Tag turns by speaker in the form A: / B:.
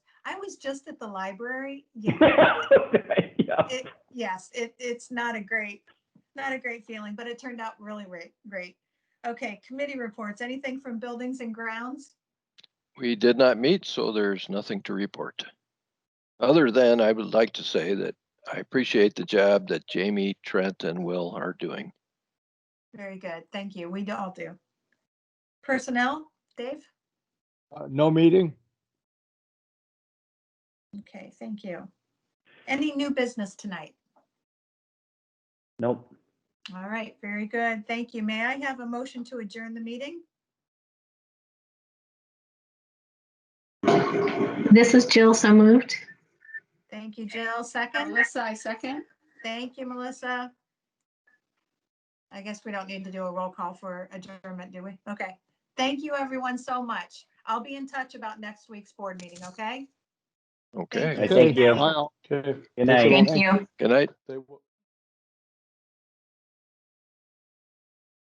A: was just at the library, yeah,
B: Yeah.
A: it, yes, it, it's not a great, not a great feeling, but it turned out really great, great. Okay, committee reports, anything from buildings and grounds?
C: We did not meet, so there's nothing to report. Other than I would like to say that I appreciate the job that Jamie, Trent, and Will are doing.
A: Very good, thank you, we do- all do. Personnel, Dave?
D: Uh, No meeting?
A: Okay, thank you. Any new business tonight?
B: Nope.
A: All right, very good, thank you. May I have a motion to adjourn the meeting?
E: This is Jill, so moved.
A: Thank you, Jill, second?
F: Melissa, I second.
A: Thank you, Melissa. I guess we don't need to do a roll call for adjournment, do we? Okay. Thank you, everyone, so much. I'll be in touch about next week's board meeting, okay?
C: Okay,
B: Thank you.
D: Wow. Okay.
B: Good night.
E: Thank you.
C: good night.
D: They will-